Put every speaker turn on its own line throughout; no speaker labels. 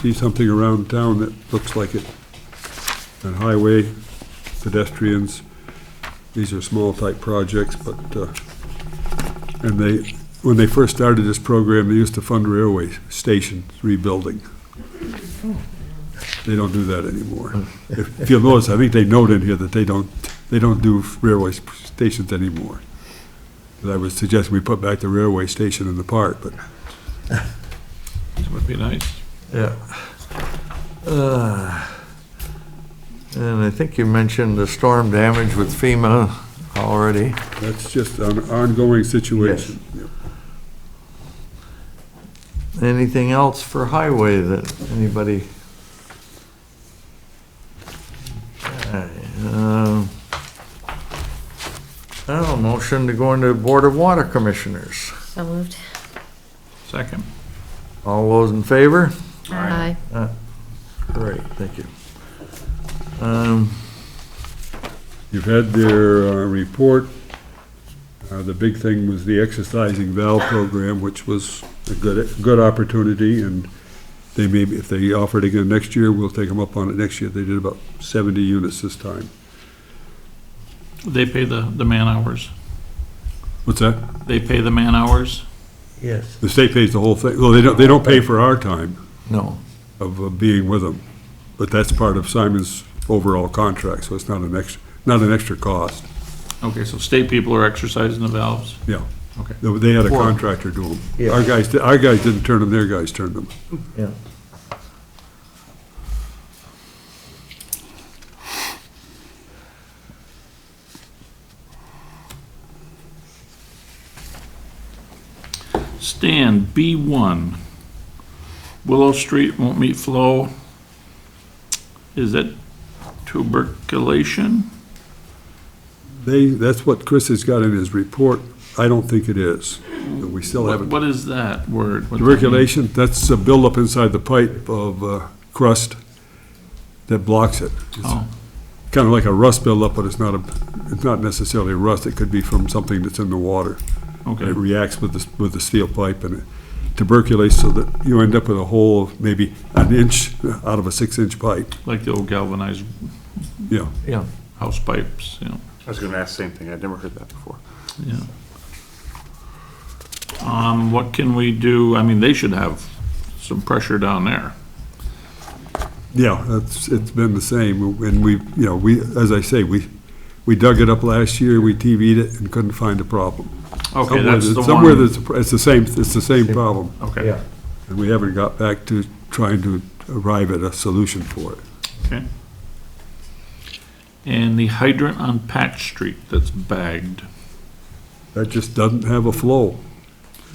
see something around town that looks like it. And highway, pedestrians, these are small type projects, but, uh, and they, when they first started this program, they used to fund railway stations rebuilding. They don't do that anymore. If if you'll notice, I think they note in here that they don't, they don't do railway stations anymore. And I would suggest we put back the railway station in the park, but
That would be nice.
Yeah. Uh, And I think you mentioned the storm damage with FEMA already.
that's just an ongoing situation.
Anything else for highway that anybody? Okay, um, Now, motion to go into Board of Water Commissioners.
So moved.
Second.
All those in favor?
Aye.
Great, thank you. Um,
You've had their uh, report. Uh, The big thing was the exercising valve program, which was a good, good opportunity, and they may, be- if they offer it again next year, we'll take them up on it next year. They did about 70 units this time.
They pay the, the man hours.
What's that?
They pay the man hours.
Yes,
The state pays the whole thing, well, they don't, they don't pay for our time
No,
of uh, being with them, but that's part of Simon's overall contract, so it's not an extra, not an extra cost.
Okay, so state people are exercising the valves.
Yeah.
Okay.
They- They had a
For-
contractor do them.
Yeah.
Our guys, di- our guys didn't turn them, their guys turned them.
yeah.
Stand B1. Willow Street won't meet flow. Is that tuberculation?
They, that's what Chris has got in his report. I don't think it is. but We still
What
haven't.
what is that word? What does that mean?
Tuberculation, that's a buildup inside the pipe of uh, crust that blocks it. It's
Oh,
kind of like a rust buildup, but it's not a, it's not necessarily rust. It could be from something that's in the water.
okay.
It reacts with the, with the steel pipe and it tuberculates so that you end up with a hole of maybe an inch out of a six-inch pipe.
Like the old galvanized
Yeah.
yeah.
house pipes, you know,
I was gonna ask the same thing, I'd never heard that before.
yeah. Um, what can we do? I mean, they should have some pressure down there.
Yeah, that's, it's been the same, and we, you know, we, as I say, we, we dug it up last year, we TV'd it and couldn't find a problem.
Okay,
Somewhere
that's
that-
the one.
Somewhere that's, it's the same, it's the same problem,
Okay.
Yeah.
and we haven't got back to trying to arrive at a solution for it.
Okay. And the hydrant on Patch Street that's bagged.
That just doesn't have a flow,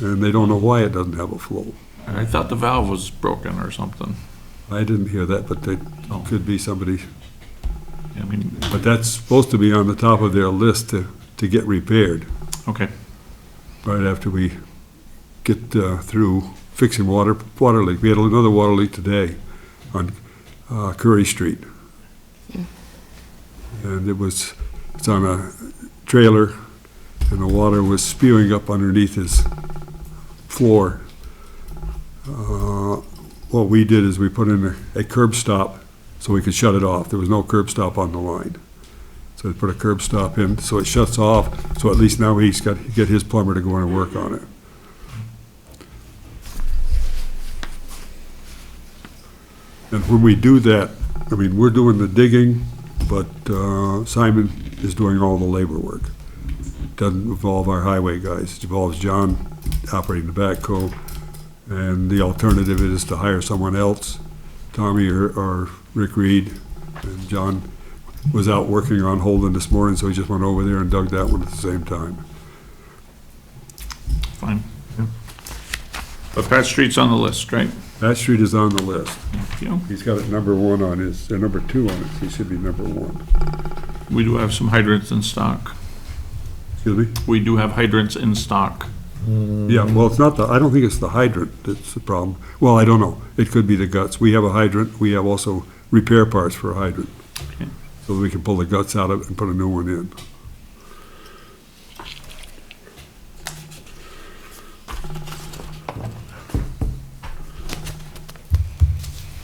and they don't know why it doesn't have a flow.
I thought the valve was broken or something.
I didn't hear that, but it
Oh.
could be somebody,
I mean,
but that's supposed to be on the top of their list to, to get repaired.
okay,
right after we get uh, through fixing water, water leak. We had another water leak today on uh, Curry Street. And it was, it's on a trailer, and the water was spewing up underneath his floor. Uh, What we did is we put in a- a curb stop so we could shut it off. There was no curb stop on the line. So they put a curb stop in, so it shuts off, so at least now he's got, get his plumber to go in and work on it. And when we do that, I mean, we're doing the digging, but uh, Simon is doing all the labor work. Doesn't involve our highway guys, it involves John operating the backhoe. And the alternative is to hire someone else, Tommy or, or Rick Reed. And John was out working on Holden this morning, so he just went over there and dug that one at the same time.
fine. But Patch Street's on the list, right?
That street is on the list.
Thank you.
He's got it number one on his, or number two on it, he should be number one.
We do have some hydrants in stock.
Excuse me?
We do have hydrants in stock.
Yeah, well, it's not the, I don't think it's the hydrant that's the problem. Well, I don't know, it could be the guts. We have a hydrant, we have also repair parts for a hydrant.
Okay.
So we can pull the guts out of it and put a new one in.